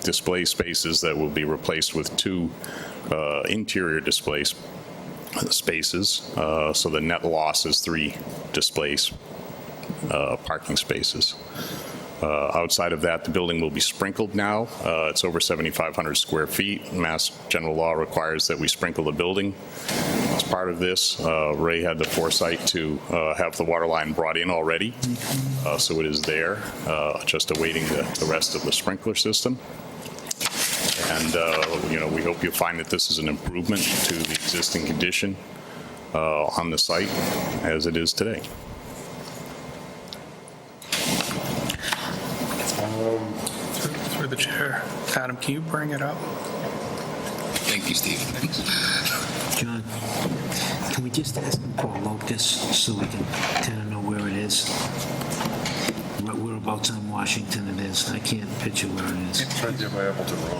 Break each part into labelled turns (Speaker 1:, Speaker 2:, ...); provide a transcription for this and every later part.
Speaker 1: display spaces that will be replaced with two uh, interior display s- spaces. Uh, So the net loss is three display s- uh, parking spaces. Uh, Outside of that, the building will be sprinkled now. Uh, It's over 7,500 square feet. Mass general law requires that we sprinkle the building. As part of this, uh, Ray had the foresight to uh, have the water line brought in already, Uh, so it is there, uh, just awaiting the the rest of the sprinkler system. And, uh, you know, we hope you find that this is an improvement to the existing condition uh, on the site as it is today.
Speaker 2: Through through the chair. Adam, can you bring it up?
Speaker 3: Thank you, Steve.
Speaker 4: John, can we just ask him for a locus so we can kind of know where it is? Where- Whereabouts on Washington it is? I can't picture where it is.
Speaker 5: Trying to do my Appleton Road.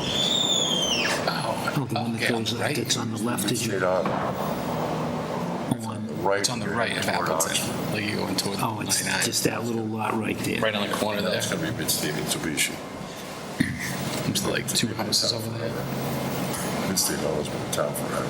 Speaker 4: Oh, the one that
Speaker 3: Okay,
Speaker 4: goes,
Speaker 3: right.
Speaker 4: that's on the left is your
Speaker 5: Straight on,
Speaker 4: one.
Speaker 5: right.
Speaker 3: It's on the right of Appleton, like you go toward
Speaker 4: Oh, it's
Speaker 3: 99.
Speaker 4: just that little lot right there.
Speaker 3: Right on the corner there,
Speaker 5: That's gonna be a bit steep, Mitsubishi.
Speaker 3: there's like two houses over there.
Speaker 5: Mid-State always been a town forever.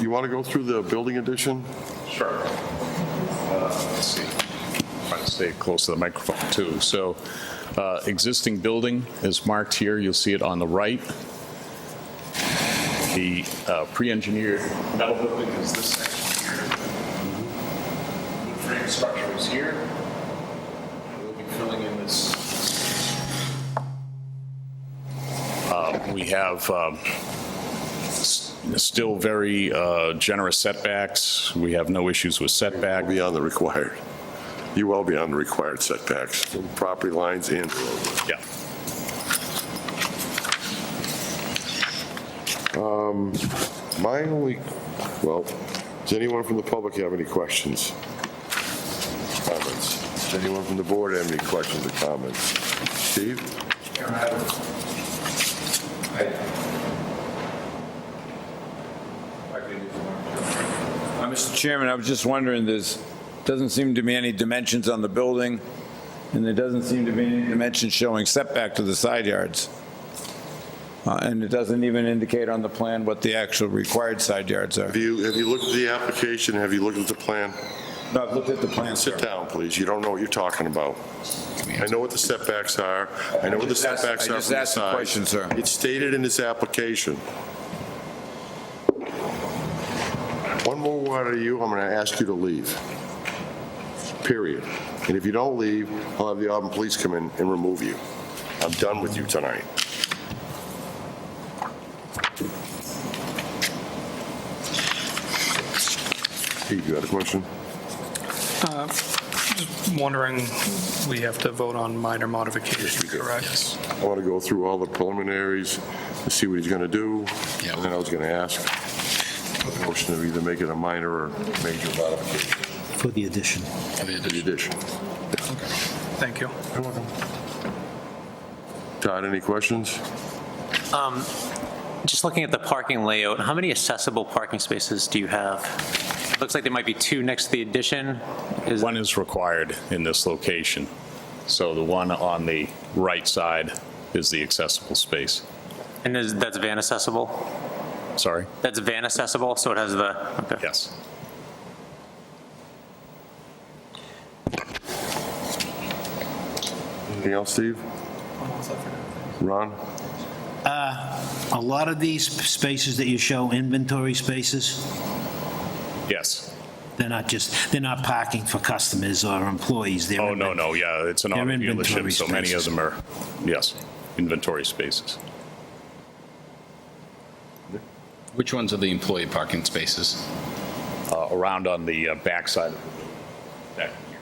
Speaker 5: You want to go through the building addition?
Speaker 1: Sure. Let's see. Try to stay close to the microphone, too. So uh, existing building is marked here. You'll see it on the right. The uh, pre-engineered metal building is this section here. Wood frame structure is here. We'll be filling in this. Uh, We have um, still very uh, generous setbacks. We have no issues with setback.
Speaker 5: Beyond the required. You well beyond the required setbacks, from property lines and roadway.
Speaker 1: Yeah.
Speaker 5: My only, well, does anyone from the public have any questions? Comments? Does anyone from the board have any questions or comments? Steve?
Speaker 6: Uh, Mr. Chairman, I was just wondering, there's, doesn't seem to be any dimensions on the building, and there doesn't seem to be any dimensions showing setback to the side yards. Uh, And it doesn't even indicate on the plan what the actual required side yards are.
Speaker 5: Have you, have you looked at the application? Have you looked at the plan?
Speaker 6: No, I've looked at the plan, sir.
Speaker 5: Sit down, please. You don't know what you're talking about. I know what the setbacks are. I know what the
Speaker 6: I just asked-
Speaker 5: setbacks
Speaker 6: I
Speaker 5: are
Speaker 6: just
Speaker 5: from the
Speaker 6: asked a
Speaker 5: side.
Speaker 6: question, sir.
Speaker 5: It's stated in this application. One more word out of you, I'm going to ask you to leave. Period. And if you don't leave, I'll have the Auburn Police come in and remove you. I'm done with you tonight. Pete, you had a question?
Speaker 2: Wondering, we have to vote on minor modification, correct?
Speaker 5: I want to go through all the preliminaries and see what he's going to do.
Speaker 3: Yeah.
Speaker 5: And then I was going to ask a motion to either make it a minor or major modification
Speaker 4: For the addition.
Speaker 5: to the addition.
Speaker 2: Thank you.
Speaker 5: Todd, any questions?
Speaker 7: Just looking at the parking layout, how many accessible parking spaces do you have? It Looks like there might be two next to the addition. Is
Speaker 1: One is required in this location. So the one on the right side is the accessible space.
Speaker 7: And is, that's van accessible?
Speaker 1: Sorry?
Speaker 7: That's van accessible, so it has the, okay.
Speaker 1: Yes.
Speaker 5: Anything else, Steve? Ron?
Speaker 4: A lot of these spaces that you show, inventory spaces,
Speaker 1: Yes.
Speaker 4: they're not just, they're not parking for customers or employees. They're
Speaker 1: Oh, no, no, yeah, it's an
Speaker 4: They're
Speaker 1: auto
Speaker 4: inventory
Speaker 1: dealership, so many of
Speaker 4: spaces.
Speaker 1: them are, yes, inventory spaces.
Speaker 3: Which ones are the employee parking spaces?
Speaker 1: Uh, Around on the uh, backside of the building. Back here.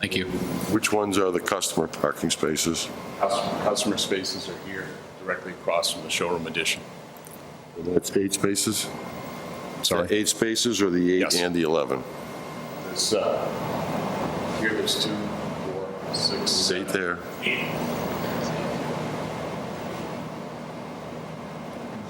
Speaker 3: Thank you.
Speaker 5: Which ones are the customer parking spaces?
Speaker 1: Customer customer spaces are here, directly across from the showroom addition.
Speaker 5: That's eight spaces?
Speaker 1: Sorry?
Speaker 5: Eight spaces or the eight
Speaker 1: Yes.
Speaker 5: and the 11?
Speaker 1: It's, uh, Here there's two, four, six,
Speaker 5: Eight
Speaker 1: seven,
Speaker 5: there.
Speaker 1: eight.